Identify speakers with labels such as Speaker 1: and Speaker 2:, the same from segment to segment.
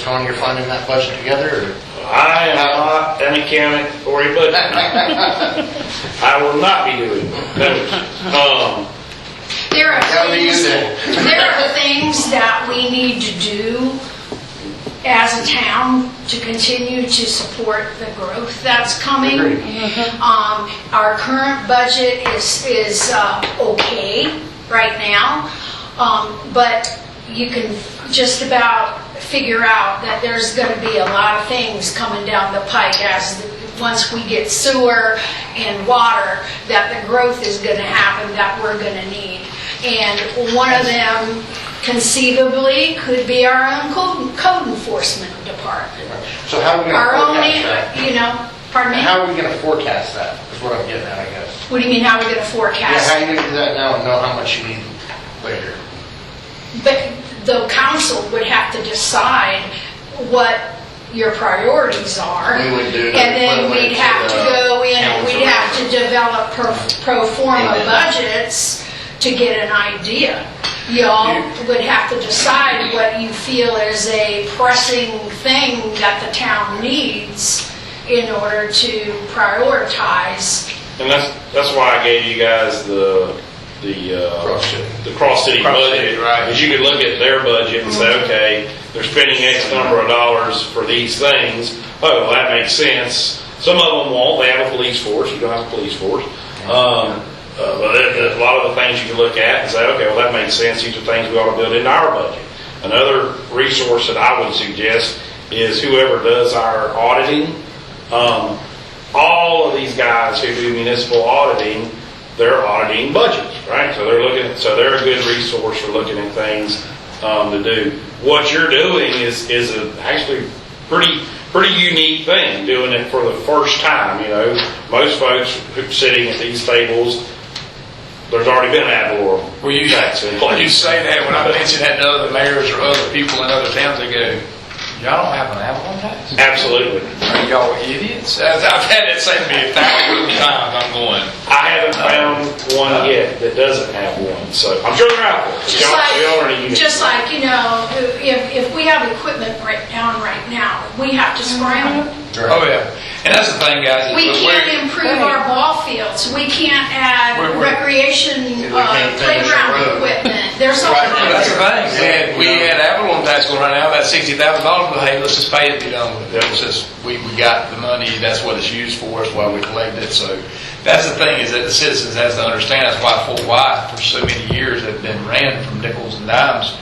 Speaker 1: Tony, you're finding that budget together, or?
Speaker 2: I am not an accountant or a budget. man. I will not be doing those. Um,
Speaker 3: There are
Speaker 1: That'll be
Speaker 3: things,
Speaker 1: you then.
Speaker 3: there are things that we need to do as a town to continue to support the growth that's coming. Um, our current budget is, is, uh, okay right now. Um, but you can just about figure out that there's gonna be a lot of things coming down the pike as, once we get sewer and water, that the growth is gonna happen that we're gonna need. And one of them conceivably could be our own code code enforcement department.
Speaker 1: So how are we
Speaker 3: Our own,
Speaker 1: gonna forecast that?
Speaker 3: you know, pardon me?
Speaker 1: How are we gonna forecast that, is what I'm getting at, I guess.
Speaker 3: What do you mean, how are we gonna
Speaker 1: Yeah,
Speaker 3: forecast?
Speaker 1: how you gonna do that now and know how much you need later?
Speaker 3: But the council would have to decide what your priorities are.
Speaker 1: We would do-
Speaker 3: And then
Speaker 1: put it
Speaker 3: we'd have to
Speaker 1: into the
Speaker 3: go in, and we'd
Speaker 1: council.
Speaker 3: have to develop pro pro forma budgets to get an idea. Y'all would have to decide what you feel is a pressing thing that the town needs in order to prioritize.
Speaker 2: And that's, that's why I gave you guys the, the, uh.
Speaker 1: Cross-city.
Speaker 2: The
Speaker 1: Cross-city,
Speaker 2: cross-city budget.
Speaker 1: right.
Speaker 2: Because you could look at their budget and say, okay, they're spending X number of dollars for these things. Oh, well, that makes sense. Some of them won't, they have a police force, you don't have a police force. Um, uh, but there- there's a lot of the things you can look at and say, okay, well, that makes sense, these are things we ought to build into our budget. Another resource that I would suggest is whoever does our auditing, um, all of these guys who do municipal auditing, they're auditing budgets, right? So they're looking, so they're a good resource for looking at things um, to do. What you're doing is is a actually pretty pretty unique thing, doing it for the first time. You know, most folks who are sitting at these tables, there's already been an ad valorem.
Speaker 4: Well, you,
Speaker 2: tax in
Speaker 4: well, you
Speaker 2: place.
Speaker 4: say that, when I mention that to other mayors or other people in other towns, they go, y'all don't have an Avalon tax?
Speaker 2: Absolutely.
Speaker 4: Are y'all idiots? I've I've had it said to me a thousand times, I'm going,
Speaker 2: I haven't found one yet that doesn't have one, so I'm sure they're out there.
Speaker 3: Just
Speaker 2: Y'all- y'all are in a
Speaker 3: like,
Speaker 2: unique-
Speaker 3: just like, you know, if, if we have equipment right down right now, we have to scramble.
Speaker 4: oh yeah. And that's the thing, guys, is
Speaker 3: We
Speaker 4: that
Speaker 3: can't
Speaker 4: we're,
Speaker 3: improve our ball fields, we can't
Speaker 4: We're-
Speaker 3: add
Speaker 4: we're-
Speaker 3: recreation
Speaker 1: can't finish a road.
Speaker 3: uh, playground equipment, there's
Speaker 1: Right.
Speaker 3: something.
Speaker 4: that's the thing, we had, we had Avalon tax going right now, about sixty thousand dollars, but hey, let's just pay it, be done with it.
Speaker 2: Yeah.
Speaker 4: It's just, we, we got the money, that's what it's used for, that's why we collect it, so. That's the thing, is that the citizens has to understand, that's why Fort White for so many years have been ran from nickels and dimes.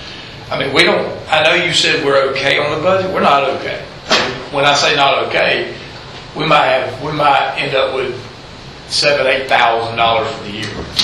Speaker 4: I mean, we don't, I know you said we're okay on the budget, we're not okay. When I say not okay, we might have, we might end up with seven, eight thousand dollars for the year.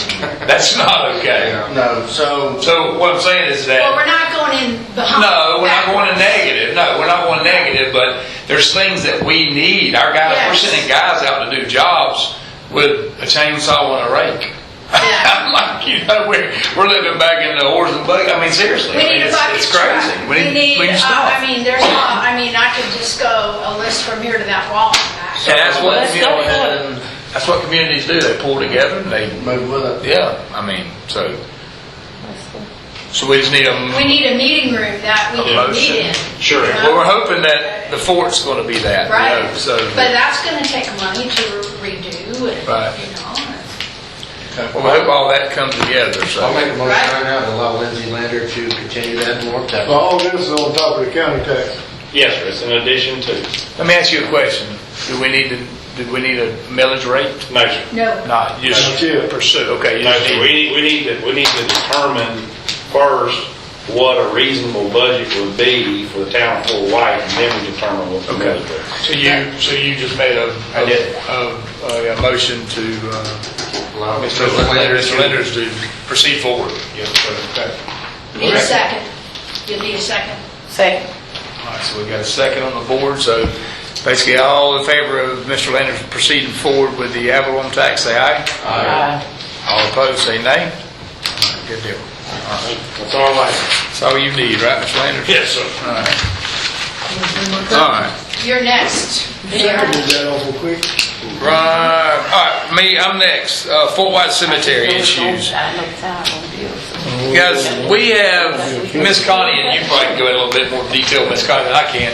Speaker 4: That's not okay.
Speaker 1: No, so,
Speaker 4: So what I'm saying is that.
Speaker 3: Well, we're not going in behind.
Speaker 4: No, we're not going to negative. No, we're not going negative, but there's things that we need. Our guys, we're
Speaker 3: Yes.
Speaker 4: sending guys out to do jobs with a chainsaw and a rake.
Speaker 3: Yeah.
Speaker 4: I'm like, you know, we're, we're living back in the horse and buggy. I mean, seriously.
Speaker 3: We
Speaker 4: I mean,
Speaker 3: need a
Speaker 4: it's-
Speaker 3: bucket
Speaker 4: It's
Speaker 3: truck.
Speaker 4: crazy.
Speaker 3: We need,
Speaker 4: we
Speaker 3: uh, I
Speaker 4: need stuff.
Speaker 3: mean, there's, a lot. I mean, I could just go a list from here to that wall and back.
Speaker 4: And that's what,
Speaker 5: Let's
Speaker 4: you
Speaker 5: go
Speaker 4: know,
Speaker 5: for it.
Speaker 4: and that's what communities do. They pull together and they,
Speaker 1: move with it.
Speaker 4: yeah, I mean, so. So we just need a
Speaker 3: We need a meeting room that we can meet in.
Speaker 2: Sure.
Speaker 4: Well, we're hoping that the fort's going to be that, you know,
Speaker 3: Right,
Speaker 4: so.
Speaker 3: but that's gonna take money to redo and,
Speaker 4: Right.
Speaker 3: you know.
Speaker 4: Well, I hope all that comes together, so.
Speaker 1: I'll make a motion
Speaker 3: Right.
Speaker 1: right now to allow Lindsay Lander to continue that and work that.
Speaker 6: All this is on top of the county tax.
Speaker 2: Yes, sir, it's an addition to,
Speaker 4: Let me ask you a question. Do we need to, do we need a millage rate?
Speaker 2: no, sir.
Speaker 3: No,
Speaker 4: Not, you just
Speaker 6: That's it.
Speaker 4: pursue, okay. you
Speaker 2: No,
Speaker 4: just
Speaker 2: sir,
Speaker 4: need-
Speaker 2: we need, we need to, we need to determine first what a reasonable budget would be for the town of Fort White, and then we determine what the millage rate. is.
Speaker 4: So you, so you just made a,
Speaker 2: I did.
Speaker 4: a, a- a motion to, uh,
Speaker 1: Allow
Speaker 4: Mr. Linder- Mr. Lenders to proceed forward. Yes, sir. Okay.
Speaker 3: need a second. You need a second.
Speaker 5: Second.
Speaker 4: All right, so we got a second on the board, so basically all in favor of Mr. Landers proceeding forward with the Avalon tax, say aye.
Speaker 5: Aye.
Speaker 4: All opposed, say nay. All right, Good deal.
Speaker 2: That's all I have.
Speaker 4: That's all you need, right, Mr. Landers?
Speaker 2: Yes, sir.
Speaker 4: All right. All right.
Speaker 3: You're next.
Speaker 6: Seconded that awful quick.
Speaker 4: Right. All right, me, I'm next. Uh, Fort White Cemetery issues.
Speaker 5: I know it's out on bills.
Speaker 4: Guys, we have, Miss Connie, and you probably can go in a little bit more detail, Miss Connie, than I can.